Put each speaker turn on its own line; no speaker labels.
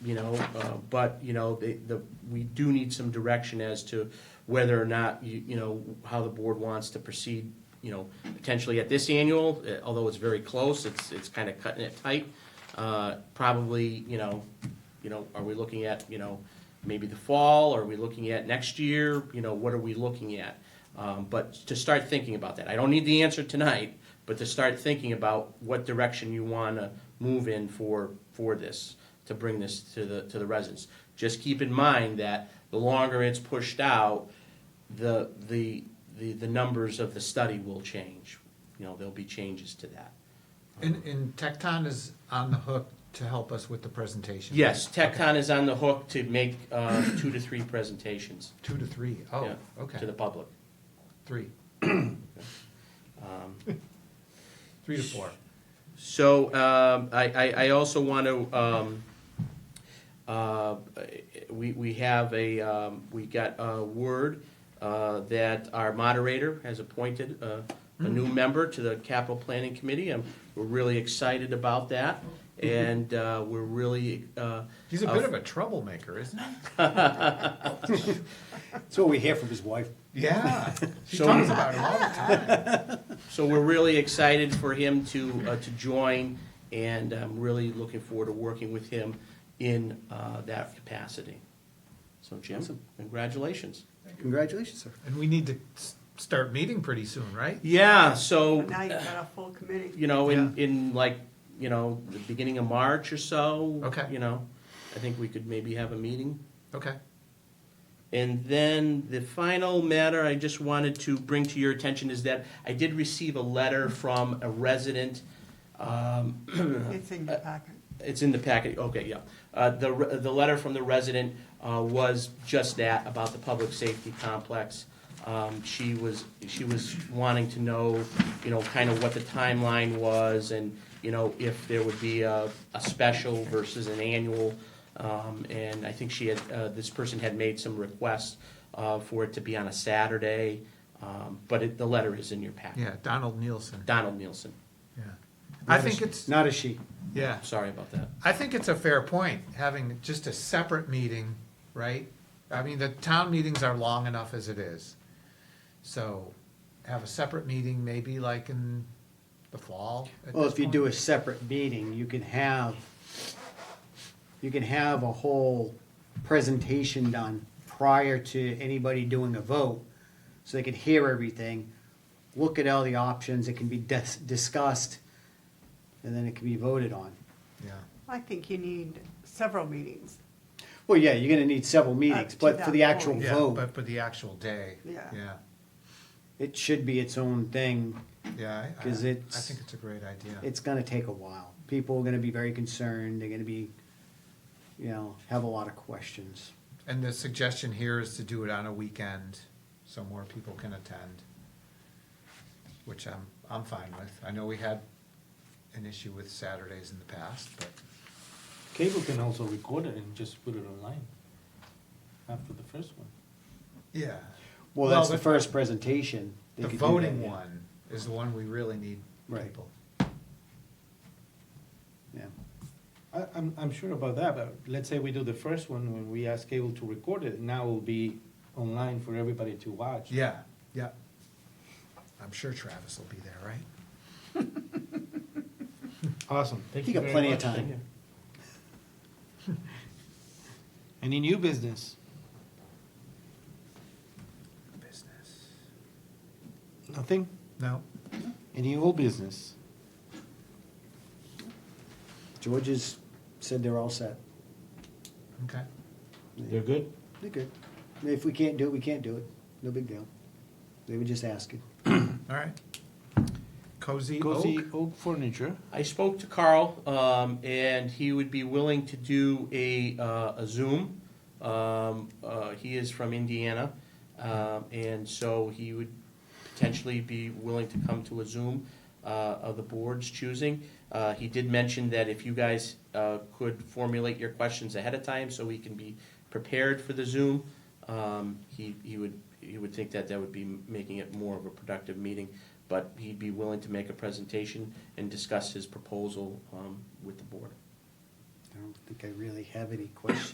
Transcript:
you know, uh, but, you know, the, the, we do need some direction as to whether or not, you, you know, how the board wants to proceed, you know, potentially at this annual, uh, although it's very close, it's, it's kind of cutting it tight. Uh, Probably, you know, you know, are we looking at, you know, maybe the fall, are we looking at next year, you know, what are we looking at? Um, But to start thinking about that, I don't need the answer tonight, but to start thinking about what direction you want to move in for, for this, to bring this to the, to the residents. Just keep in mind that the longer it's pushed out, the, the, the, the numbers of the study will change. You know, there'll be changes to that.
And, and Tecton is on the hook to help us with the presentation?
Yes, TechCon is on the hook to make uh, two to three presentations.
Two to three. Oh,
yeah, To the
okay,
public.
three,
Um,
three to four.
So um, I, I, I also want to, um, uh, we, we have a, um, we got a word uh, that our moderator has appointed uh, a new member to the capital planning committee. And we're really excited about that. And uh, we're really, uh,
He's a bit of a troublemaker, isn't he?
That's what we hear from his wife.
Yeah, she
So-
talks about him all the time.
so we're really excited for him to, uh, to join. And I'm really looking forward to working with him in uh, that capacity. So Jim,
Awesome.
congratulations.
Congratulations, sir.
And we need to s- start meeting pretty soon, right?
Yeah, so,
But Now you've got a full committee.
you know, in, in like, you know, the beginning of March or so.
Okay.
You know, I think we could maybe have a meeting.
Okay,
And then the final matter I just wanted to bring to your attention is that I did receive a letter from a resident. um,
It's in your packet.
It's in the packet, okay, yeah. Uh, The, re- the letter from the resident uh, was just that, about the public safety complex. Um, She was, she was wanting to know, you know, kind of what the timeline was and, you know, if there would be a, a special versus an annual. Um, And I think she had, uh, this person had made some requests uh, for it to be on a Saturday, Um, but it, the letter is in your packet.
yeah, Donald Nielsen,
Donald Nielson,
yeah. I think it's,
Not a she.
yeah,
sorry about that.
I think it's a fair point, having just a separate meeting, right? I mean, the town meetings are long enough as it is. So have a separate meeting, maybe like in the fall. at
Well,
this
if you do a
point.
separate meeting, you can have, you can have a whole presentation done prior to anybody doing a vote, so they could hear everything, look at all the options, it can be dis- discussed, and then it can be voted on.
Yeah.
I think you need several meetings.
Well, yeah, you're gonna need several meetings,
Uh,
to
but for
that
the actual
point.
Yeah,
vote,
but for the actual day.
Yeah.
Yeah,
it should be its own thing.
yeah. I- I-
'Cause it's-
I think it's a great idea.
it's gonna take a while. People are gonna be very concerned, they're gonna be, you know, have a lot of questions.
And the suggestion here is to do it on a weekend, so more people can attend, which I'm, I'm fine with. I know we had an issue with Saturdays in the past, but,
Cable can also record it and just put it online after the first one.
yeah.
Well, that's
Well,
the
the-
first presentation. They
The
could do that,
voting
yeah.
one is the one we really need
Right.
people.
Yeah,
I, I'm, I'm sure about that, but let's say we do the first one when we ask cable to record it, now it'll be online for everybody to watch.
Yeah, yeah. I'm sure Travis will be there, right?
Awesome, thank
you
you
got
very
plenty of
much.
time.
Any new business?
Business.
Nothing?
No,
Any old business?
George's said they're all set.
okay.
They're good?
They're good. If we can't do it, we can't do it. No big deal. They were just asking.
All right. Cozy
Cozy
Oak?
Oak Furniture,
I spoke to Carl, um, and he would be willing to do a, uh, a Zoom. Um, uh, he is from Indiana, um, and so he would potentially be willing to come to a Zoom, uh, of the board's choosing. Uh, he did mention that if you guys, uh, could formulate your questions ahead of time so we can be prepared for the Zoom, um, he, he would, he would think that that would be making it more of a productive meeting but he'd be willing to make a presentation and discuss his proposal um, with the board.
I don't think I really have any questions.